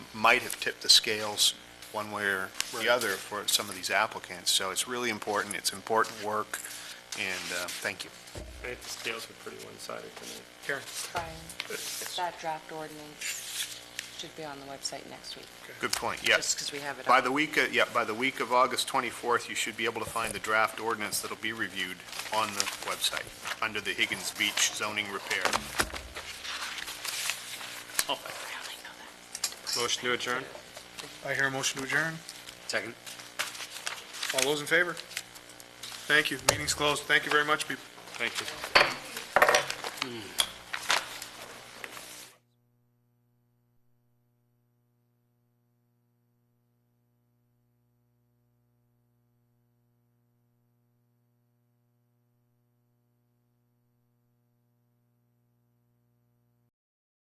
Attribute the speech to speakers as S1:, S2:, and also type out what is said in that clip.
S1: might have tipped the scales one way or the other for some of these applicants. So it's really important, it's important work, and uh, thank you.
S2: I think the scales were pretty one-sided tonight.
S3: Karen?
S4: Brian, that draft ordinance should be on the website next week,
S1: Good point, yes.
S4: just because we have it
S1: By
S4: on.
S1: the week, uh, yeah, by the week of August 24th, you should be able to find the draft ordinance that'll be reviewed on the website, under the Higgins Beach zoning repair.
S2: Motion to adjourn?
S3: I hear a motion to adjourn.
S5: Second.
S3: All those in favor? Thank you. Meeting's closed. Thank you very much, people.
S2: Thank you.